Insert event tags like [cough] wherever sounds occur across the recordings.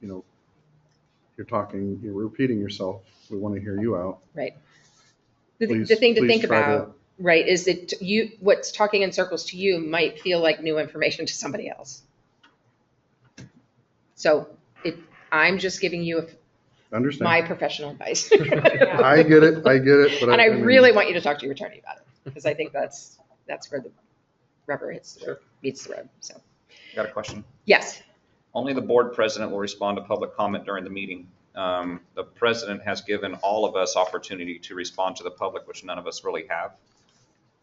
you know, you're talking, you're repeating yourself. We want to hear you out. The, th- Please- the thing to please think try to- about, right, is that you, what's talking in circles to you might feel like new information to somebody else. So it, I'm just giving you my Understand? professional advice. [laughs] I get it, I get it, but. And I mean, really want you to talk to your attorney about it, because I think that's, that's where the rubber hits, the road- meets the road, so. Got a question. Yes, Only the board president will respond to public comment during the meeting. Um, The president has given all of us opportunity to respond to the public, which none of us really have.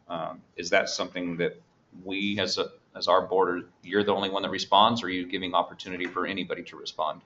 Um, Is that something that we, as, a as our board, you're the only one that responds, or are you giving opportunity for anybody to respond?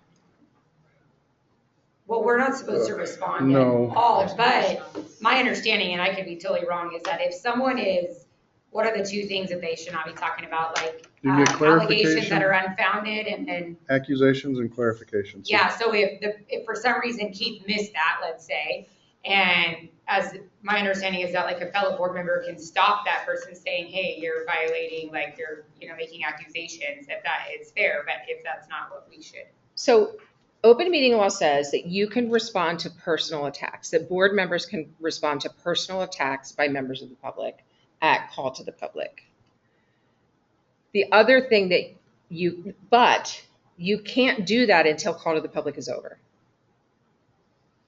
Well, we're not supposed to respond at No. all, but my understanding, and I could be totally wrong, is that if someone is, what are the two things that they should not be talking about, like You get uh, allegations clarification? that are unfounded and then, Accusations and clarifications. yeah, so if the, if for some reason Keith missed that, let's say, and as, my understanding is that like a fellow board member can stop that person saying, hey, you're violating, like you're, you know, making accusations, if that is fair, but if that's not what we should. so open meeting law says that you can respond to personal attacks, that board members can respond to personal attacks by members of the public at call to the public. The other thing that you, but you can't do that until call to the public is over,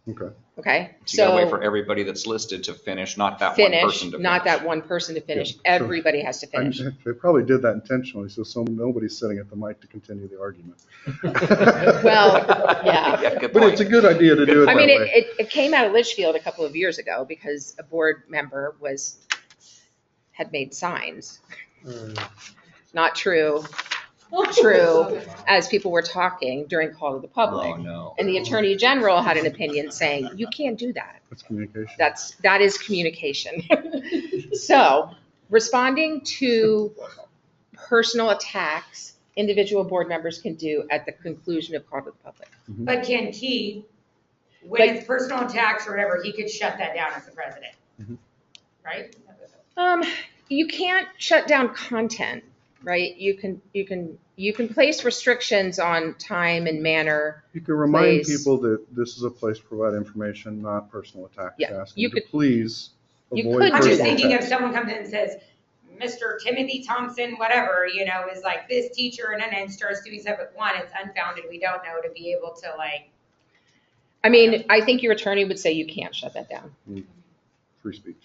Okay. okay? So you gotta wait So- for everybody that's listed to finish, not that one finish, person to finish. not that one person to finish. Yeah, sure. Everybody has to And finish. [laughs] They probably did that intentionally, so some, nobody's sitting at the mic to continue the argument. [laughs] Well, yeah. good But it's a point. good idea to do it I that mean, it, way. it, it came out of Litchfield a couple of years ago because a board member was, had made signs. Mm. Not true, true, as people were talking during call to the Oh, public. no. And the attorney general had an opinion saying, you can't do that. That's communication. That's, that is communication. [laughs] So responding to personal attacks, individual board members can do at the conclusion of call to the public. But can he, when it's personal attacks or whatever, he could shut that down as the president? Mhm. Right? Um, you can't shut down content, right? You can, you can, you can place restrictions on time and manner. You can remind Please. people that this is a place to provide information, not personal attacks. Yeah, Ask you them to could- please you avoid could do I'm just personal that. thinking if attacks. someone comes in and says, Mr. Timothy Thompson, whatever, you know, is like this teacher and then it starts doing stuff at one, it's unfounded, we don't know, to be able to like, [laughs] I mean, I think your attorney would say you can't shut that down. Free speech.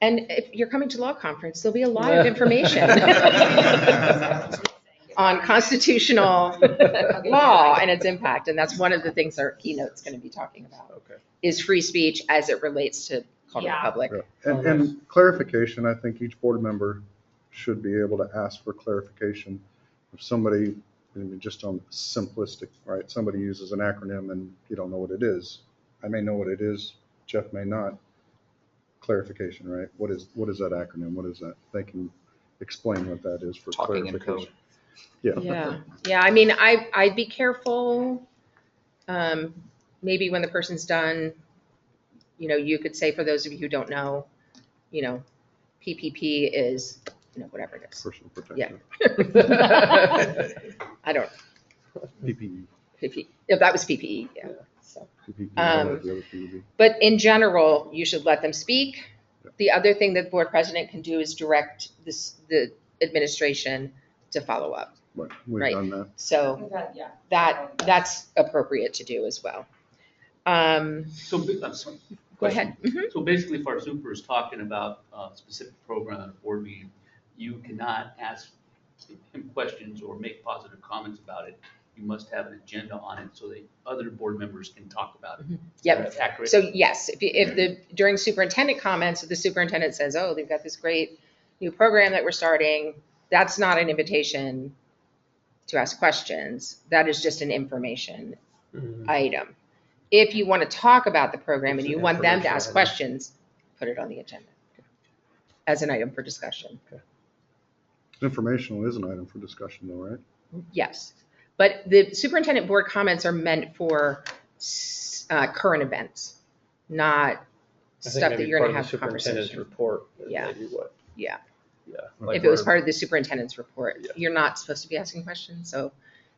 And if you're coming to law conference, there'll be a lot of [laughs] information [laughs] on constitutional law and its impact. And that's one of the things our keynote's going to be talking about, Okay. is free speech as it relates to call to the Yeah. public. Yeah. And, Oh, Okay. and clarification, I think each board member should be able to ask for clarification. If somebody, I mean, just on simplistic, right, somebody uses an acronym and you don't know what it is. I may know what it is, Jeff may not. Clarification, right? What is, what is that acronym? What is that? They can explain what that is for Talking in code. clarification. Yeah, Yeah, yeah, I mean, I, I'd be careful. Um, maybe when the person's done, you know, you could say, for those of you who don't know, you know, PPP is, you know, whatever it is. personal Yeah. protection, I don't, PPE, PP, if that was PPE, yeah, so. PPP, Um, E. whatever the other PPE. But in general, you should let them speak. The other thing that the board president can do is direct this, the administration to follow up. But we've Right. done that. So Yeah. that, that's appropriate to do as well. Um, So, ba- I'm sorry. go ahead. Mhm. So basically, if our super is talking about a specific program at a board meeting, you cannot ask him questions or make positive comments about it. You must have an agenda on it so that other board members can talk about it. Mm-hmm. Yep. That's accurate. So yes, if, if the, during superintendent comments, if the superintendent says, oh, they've got this great new program that we're starting, that's not an invitation to ask questions. That is just an information Mm. item. If you want to talk about the program and It's you an want them to information ask item. questions, put it on the agenda as an item for discussion. Informational is an item for discussion though, right? Yes. But the superintendent board comments are meant for s- uh, current events, not I think stuff that maybe you're going to part of have the Superintendent's conversation. report. is Yeah. maybe what- Yeah. Yeah. If it was Like part of the superintendent's report, Yeah. you're not supposed to be asking questions, so